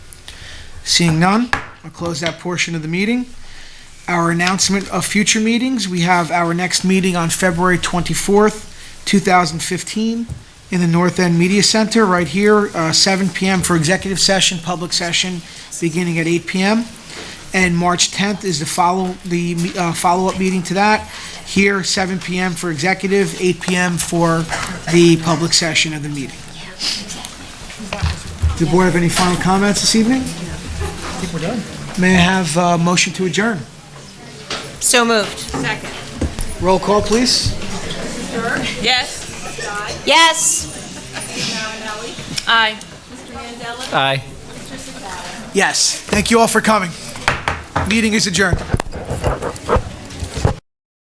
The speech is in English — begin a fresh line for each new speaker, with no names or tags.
Seeing none, I'll close that portion of the meeting. Our announcement of future meetings, we have our next meeting on February 24th, 2015, in the North End Media Center, right here, uh, 7 PM for executive session, public session, beginning at 8 PM. And March 10th is the follow, the uh, follow-up meeting to that, here, 7 PM for executive, 8 PM for the public session of the meeting. Does the board have any final comments this evening? May I have a motion to adjourn?
So moved. Second.
Roll call, please.
Yes. Yes. Aye.
Aye.
Yes. Thank you all for coming. Meeting is adjourned.